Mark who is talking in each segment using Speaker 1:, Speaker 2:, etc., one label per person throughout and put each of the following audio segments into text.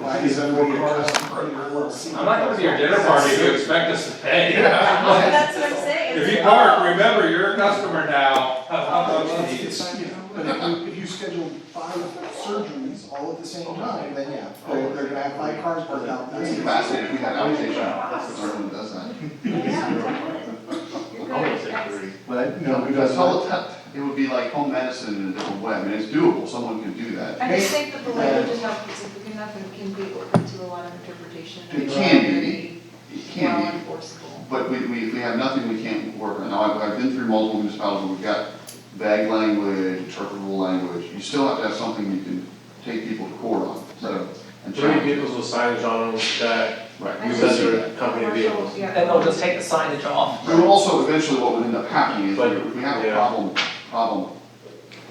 Speaker 1: I
Speaker 2: Is that what
Speaker 1: be a
Speaker 2: you are?
Speaker 1: customer of your LLC.
Speaker 3: I'm not gonna be your dinner party if you expect us to pay.
Speaker 4: That's what I'm saying.
Speaker 3: If you park, remember, you're a customer now.
Speaker 1: It's, you know, but if you, if you schedule five surgeries all at the same time, then yeah, they're, they're gonna have five cars parked out. there.
Speaker 2: That's fascinating, we had outpatient, that's the person who does that.
Speaker 4: You're good.
Speaker 2: But,
Speaker 1: No, we
Speaker 2: because
Speaker 1: don't.
Speaker 2: telehealth, it would be like home medicine in a different way, I mean, it's doable, someone can do that.
Speaker 5: I just think that the language is helpful, because nothing can be open to a lot of interpretation. and
Speaker 2: It can be.
Speaker 5: very
Speaker 2: It can
Speaker 5: Well
Speaker 2: be,
Speaker 5: enforceable.
Speaker 2: but we, we, we have nothing we can't work on. Now, I've, I've been through multiple municipalities, where we've got vague language, interpretable language, you still have to have something you can take people to court on, so. And
Speaker 6: Three
Speaker 2: challenge.
Speaker 6: vehicles with signage on them that
Speaker 2: Right,
Speaker 6: you
Speaker 2: you
Speaker 6: said
Speaker 2: can do that.
Speaker 6: are company vehicles.
Speaker 5: Yeah.
Speaker 7: And they'll just take the signage off.
Speaker 2: But also eventually what would end up happening is
Speaker 6: But,
Speaker 2: if we have a
Speaker 6: yeah.
Speaker 2: problem, problem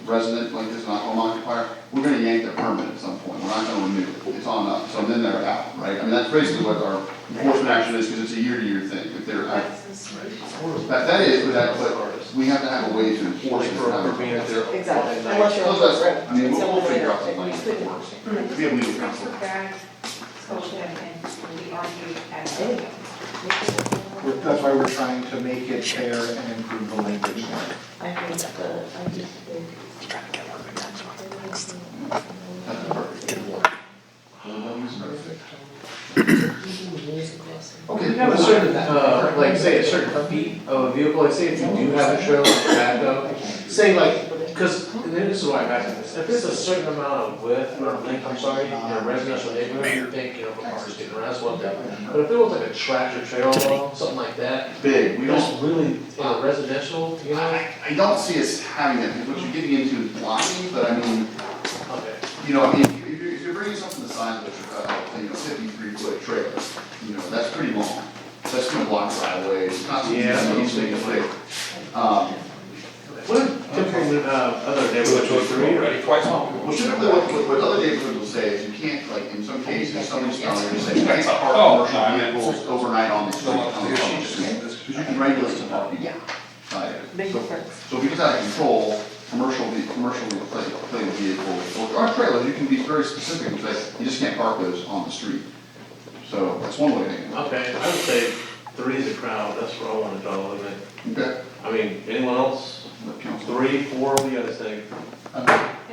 Speaker 2: resident like this, not home occupier, we're gonna yank their permit at some point, we're not gonna renew it, it's on us, so then they're out, right? I mean, that's basically what our enforcement action is, because it's a year-to-year thing, if they're out.
Speaker 5: That's just right.
Speaker 2: That, that is, but that, but we have to have a way to enforce
Speaker 6: Like
Speaker 2: it.
Speaker 6: for, for being up there.
Speaker 8: Exactly.
Speaker 6: all night.
Speaker 8: Unless you're
Speaker 2: Those
Speaker 8: on the
Speaker 2: are-
Speaker 8: road.
Speaker 2: I mean, we'll, we'll
Speaker 8: It's
Speaker 2: figure out
Speaker 8: somewhere
Speaker 2: some language
Speaker 8: else.
Speaker 2: that works.
Speaker 5: I just
Speaker 2: We have
Speaker 5: think
Speaker 2: legal
Speaker 5: it's
Speaker 2: counsel.
Speaker 5: a bad solution and we argue as.
Speaker 8: Anyway.
Speaker 1: We're- That's why we're trying to make it fair and improve the language.
Speaker 8: I think the, I think the.
Speaker 2: That's perfect. Everybody's perfect. Okay.
Speaker 6: Have a certain, uh, like say a certain feet of a vehicle, like say if you do have a trailer like back up, say like, cause, and then this is why I'm asking this, if it's a certain amount of width or length, I'm sorry, in a residential neighborhood, you think, you know, the car's getting around, that's one thing. But if it was like a tractor trailer, something like that,
Speaker 2: Big, we
Speaker 6: we
Speaker 2: don't,
Speaker 6: don't really, in a residential, you know?
Speaker 2: I, I don't see us having that, because what you're getting into is blocking, but I mean,
Speaker 6: Okay.
Speaker 2: you know, I mean, if you're, if you're bringing something the size of, uh, you know, fifty-three foot trailer, you know, that's pretty long. That's gonna block right away, it's not something
Speaker 6: Yeah.
Speaker 2: that's easy to play. Um,
Speaker 6: What if typical, uh, other neighborhoods would agree, right?
Speaker 3: Already twice long.
Speaker 2: well, typically what, what, what other neighborhoods will say is you can't, like, in some cases, somebody's telling you, say, you can't
Speaker 3: Oh, I
Speaker 2: park commercial
Speaker 3: meant-
Speaker 2: vehicles overnight on the street, on the public street.
Speaker 3: This
Speaker 2: Because you can regulate the parking.
Speaker 8: Yeah.
Speaker 2: Right.
Speaker 8: Big
Speaker 2: So-
Speaker 8: difference.
Speaker 2: So if you get out of control, commercial, ve- commercial plate vehicles, or or trailers, you can be very specific, and say you just can't park those on the street. So that's one way to handle
Speaker 6: Okay, I would say three is a crowd, that's where I want to draw a limit.
Speaker 2: it. Okay.
Speaker 6: I mean, anyone else?
Speaker 2: Let council-
Speaker 6: Three, four, what do you guys think?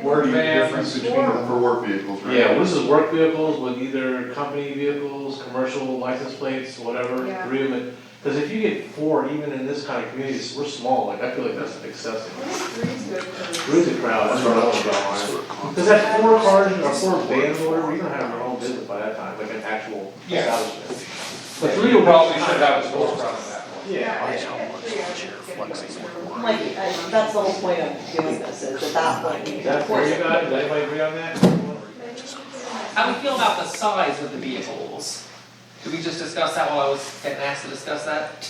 Speaker 2: Where do you
Speaker 3: Van,
Speaker 2: difference between them for work vehicles, right?
Speaker 6: Yeah, well, this is work vehicles with either company vehicles, commercial license plates, whatever,
Speaker 5: Yeah.
Speaker 6: three of them. Because if you get four, even in this kind of community, it's- we're small, like, I feel like that's excessive. Three is a crowd, that's where I want to draw a line. Because that four cars or four vans or whatever, you're gonna have your own business by that time, like an actual
Speaker 1: Yeah.
Speaker 6: establishment.
Speaker 3: The three will probably should have a storefront at that point.
Speaker 6: Yeah.
Speaker 5: I think at three hours, it's gonna work.
Speaker 8: Like, I- that's the whole point of doing this, is at that point, you
Speaker 6: Is
Speaker 8: can
Speaker 6: that for
Speaker 8: force
Speaker 6: you
Speaker 8: it.
Speaker 6: guys, does anybody agree on that?
Speaker 7: How do we feel about the size of the vehicles? Did we just discuss that while I was getting asked to discuss that?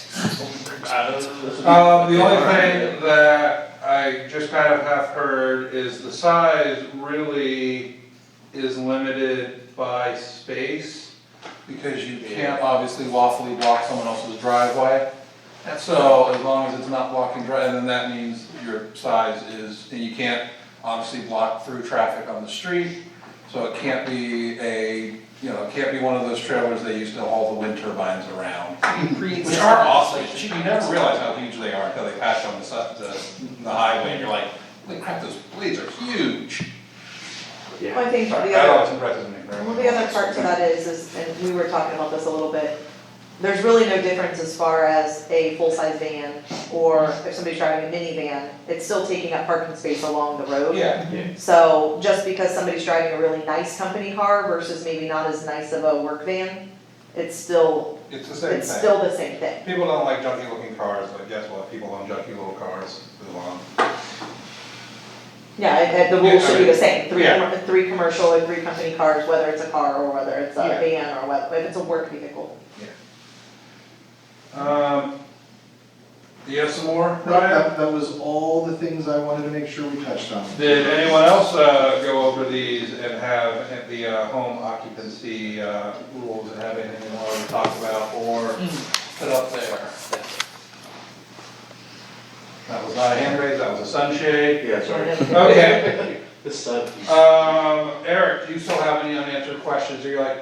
Speaker 3: Um, the only thing that I just kind of have heard is the size really is limited by space, because you can't obviously lawfully block someone else's driveway. So as long as it's not blocking drive, then that means your size is, and you can't obviously block through traffic on the street, so it can't be a, you know, it can't be one of those trailers they used to haul the wind turbines around. Which are awesome, you you never realize how huge they are until they pass you on the side, the, the highway, and you're like, holy crap, those blades are huge.
Speaker 8: Well, I think the
Speaker 3: Sorry,
Speaker 8: other.
Speaker 3: That always impresses me very
Speaker 8: Well,
Speaker 3: much.
Speaker 8: the other part to that is, is, and we were talking about this a little bit, there's really no difference as far as a full-size van or if somebody's driving a minivan, it's still taking up parking space along the road.
Speaker 3: Yeah,
Speaker 8: So just because somebody's driving a really nice company car versus maybe not as nice of a work van, it's still,
Speaker 3: it's the same
Speaker 8: it's
Speaker 3: thing.
Speaker 8: still the same thing.
Speaker 3: People don't like junky looking cars, but guess what, people own junky little cars, move on.
Speaker 8: Yeah, and- and the
Speaker 3: Yeah,
Speaker 8: rules should be
Speaker 3: I mean,
Speaker 8: the same, three,
Speaker 3: yeah.
Speaker 8: com- three commercial and three company cars, whether it's a car or whether it's a
Speaker 3: Yeah.
Speaker 8: van or whether, if it's a work vehicle.
Speaker 3: Um, do you have some more,
Speaker 1: That, that, that was all the things I wanted to make sure we touched on.
Speaker 3: Did anyone else, uh, go over these and have the, uh, home occupancy, uh, rules and have anything you wanted to talk about or put up there? That was not a hand raise, that was a sunshade.
Speaker 6: Yeah, sorry.
Speaker 3: Okay,
Speaker 6: This side.
Speaker 3: um, Eric, do you still have any unanswered questions? Are you like,